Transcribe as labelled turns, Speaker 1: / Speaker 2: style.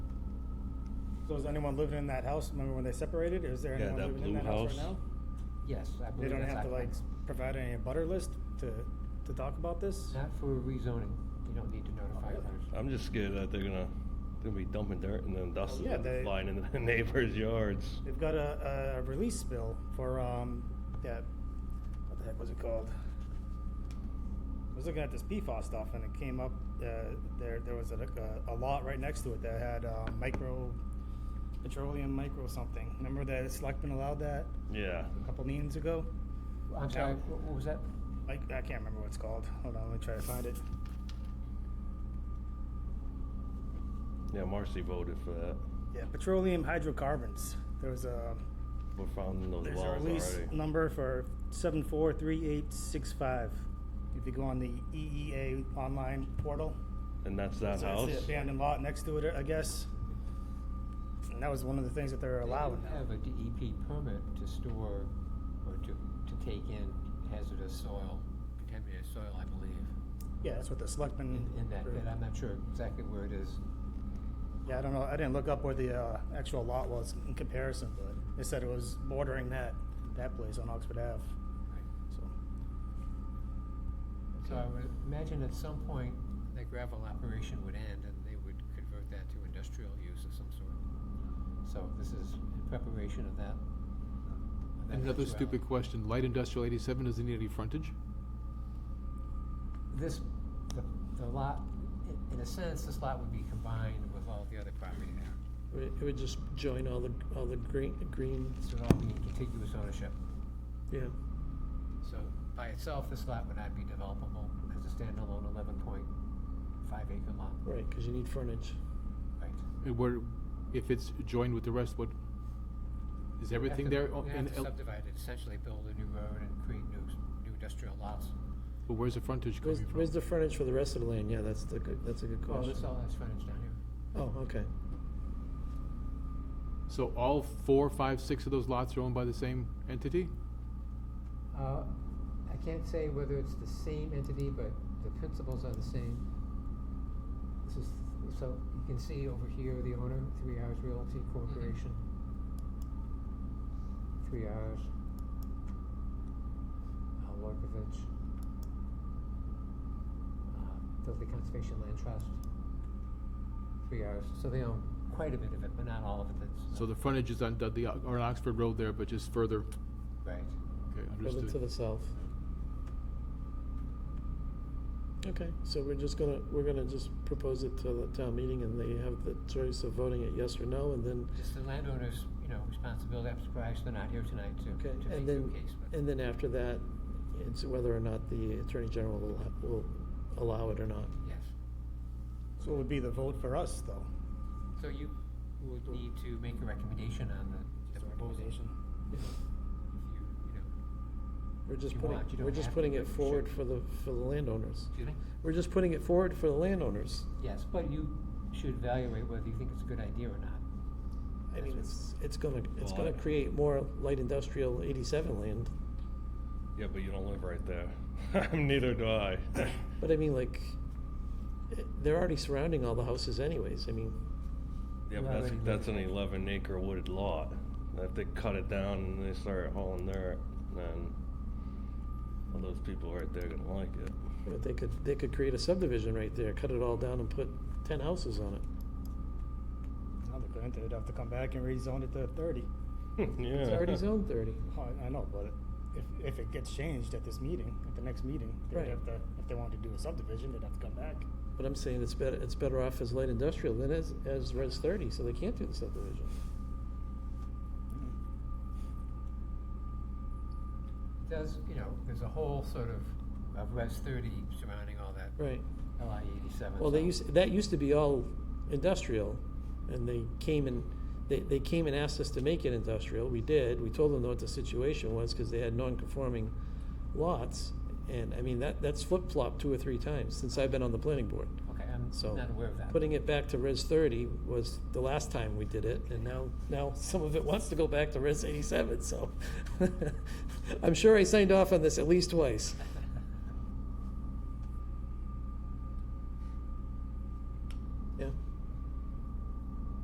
Speaker 1: So is anyone living in that house? Remember when they separated? Is there
Speaker 2: Yeah,
Speaker 1: anyone
Speaker 2: that
Speaker 1: living in
Speaker 2: blue
Speaker 1: that house
Speaker 2: house.
Speaker 1: right now?
Speaker 3: Yes, I
Speaker 1: They
Speaker 3: believe
Speaker 1: don't
Speaker 3: that's
Speaker 1: have to like
Speaker 3: occupied.
Speaker 1: provide any butter list to, to talk about this?
Speaker 3: Not for rezoning, you don't need to notify
Speaker 1: really?
Speaker 3: others.
Speaker 2: I'm just scared that they're gonna, they're gonna be dumping dirt and then dust is
Speaker 1: Yeah,
Speaker 2: gonna
Speaker 1: they-
Speaker 2: be flying into the neighbors' yards.
Speaker 1: They've got a, a release bill for, um, that, what the heck was it called? I was looking at this PFAS stuff and it came up, uh, there, there was a, a lot right next to it that had, uh, micro, petroleum micro something. Remember that selectmen allowed that
Speaker 2: Yeah,
Speaker 1: a couple meetings ago?
Speaker 3: I'm sorry, wh- what was that?
Speaker 1: I, I can't remember what it's called. Hold on, let me try to find it.
Speaker 2: yeah, Marcy voted for that.
Speaker 1: Yeah, petroleum hydrocarbons. There was a,
Speaker 2: We're found in those
Speaker 1: there's
Speaker 2: wells
Speaker 1: a release
Speaker 2: already.
Speaker 1: number for seven four three eight six five. If you go on the EEA online portal.
Speaker 2: And that's that
Speaker 1: so that's
Speaker 2: house?
Speaker 1: the abandoned lot next to it, I guess. And that was one of the things that they were allowing.
Speaker 3: They do have a DEP permit to store or to, to take in hazardous soil, contaminated soil, I believe,
Speaker 1: Yeah, that's what the selectmen.
Speaker 3: in, in that bit. I'm not sure exactly where it is.
Speaker 1: Yeah, I don't know. I didn't look up where the uh, actual lot was in comparison, but they said it was bordering that, that place on Oxford Ave. So,
Speaker 3: So I would imagine at some point, that gravel operation would end and they would convert that to industrial use of some sort. So this is in preparation of that. of that
Speaker 4: Another stupid
Speaker 3: eventuality.
Speaker 4: question, light industrial eighty-seven doesn't need any frontage?
Speaker 3: This, the, the lot, i- in a sense, this lot would be combined with all the other property there.
Speaker 5: It would- it would just join all the, all the green, green,
Speaker 3: This would all be in contiguous ownership.
Speaker 5: yeah.
Speaker 3: So by itself, this lot would not be developable as a standalone eleven point five acre lot.
Speaker 5: Right, because you need frontage.
Speaker 3: Right.
Speaker 4: And where, if it's joined with the rest, what, is everything there? Oh,
Speaker 3: You
Speaker 4: and-
Speaker 3: have to subdivide it, essentially build a new road and create new, new industrial lots.
Speaker 4: But where's the frontage
Speaker 5: Where's,
Speaker 4: coming from?
Speaker 5: where's the frontage for the rest of the land? Yeah, that's the good, that's a good
Speaker 3: Well, Oh, this
Speaker 5: question.
Speaker 3: all has frontage down here.
Speaker 5: Oh, okay.
Speaker 4: So all four, five, six of those lots are owned by the same entity?
Speaker 3: Uh, I can't say whether it's the same entity, but the principles are the same. This is, so you can see over here, the owner, Three Hours Realty Corporation. Three Hours. Uh, Lorkovich. Uh, Dudley Conservation Land Trust. Three Hours, so they own quite a bit of it, but not all of it, that's.
Speaker 4: So the frontage is on Dudley, or on Oxford Road there, but just further,
Speaker 3: Right.
Speaker 4: okay,
Speaker 5: Over to
Speaker 4: understood.
Speaker 5: the south. Okay, so we're just gonna, we're gonna just propose it to the town meeting and they have the choice of voting it yes or no and then,
Speaker 3: Just the landowner's, you know, responsibility, I'm surprised they're not here tonight to,
Speaker 5: okay,
Speaker 3: to make
Speaker 5: and
Speaker 3: their
Speaker 5: then,
Speaker 3: case, but.
Speaker 5: and then after that, it's whether or not the attorney general will, ha- will allow it or not.
Speaker 3: Yes,
Speaker 1: so it would be the vote for us, though.
Speaker 3: so you would need to make a recommendation on the, the recommendation, if you, you know,
Speaker 5: We're just
Speaker 3: You
Speaker 5: putting,
Speaker 3: want, you
Speaker 5: we're
Speaker 3: don't
Speaker 5: just
Speaker 3: have to,
Speaker 5: putting
Speaker 3: but
Speaker 5: it
Speaker 3: you should.
Speaker 5: forward for the, for the landowners.
Speaker 3: excuse me?
Speaker 5: We're just putting it forward for the landowners.
Speaker 3: Yes, but you should evaluate whether you think it's a good idea or not.
Speaker 5: I mean, it's, it's gonna, it's
Speaker 2: Well,
Speaker 5: gonna
Speaker 2: I-
Speaker 5: create more light industrial eighty-seven land.
Speaker 2: Yeah, but you don't live right there. Neither do I.
Speaker 5: But I mean, like, eh, they're already surrounding all the houses anyways, I mean,
Speaker 2: Yeah,
Speaker 3: You
Speaker 2: but that's,
Speaker 3: already live
Speaker 2: that's
Speaker 3: in
Speaker 2: an
Speaker 3: it.
Speaker 2: eleven acre wooded lot. If they cut it down and they start hauling dirt, then all those people right there gonna like it.
Speaker 5: but they could, they could create a subdivision right there, cut it all down and put ten houses on it.
Speaker 1: Now they're going to, they'd have to come back and rezone it to thirty.
Speaker 2: Yeah.
Speaker 5: It's already zoned thirty.
Speaker 1: Oh, I- I know, but if, if it gets changed at this meeting, at the next meeting, they'd
Speaker 5: Right.
Speaker 1: have to, if they wanted to do a subdivision, they'd have to come back.
Speaker 5: But I'm saying it's better, it's better off as light industrial than as, as res thirty, so they can't do the subdivision.
Speaker 3: It Does, you know, there's a whole sort of, of Res thirty surrounding all that
Speaker 5: Right.
Speaker 3: LI eighty-seven.
Speaker 5: Well, they
Speaker 3: so-
Speaker 5: used, that used to be all industrial, and they came and, they, they came and asked us to make it industrial, we did, we told them what the situation was, cause they had non-conforming lots, and, I mean, that, that's flip-flopped two or three times since I've been on the planning board,
Speaker 3: Okay, I'm
Speaker 5: so.
Speaker 3: not aware of that.
Speaker 5: Putting it back to res thirty was the last time we did it, and now, now some of it wants to go back to res eighty-seven, so. I'm sure I signed off on this at least twice.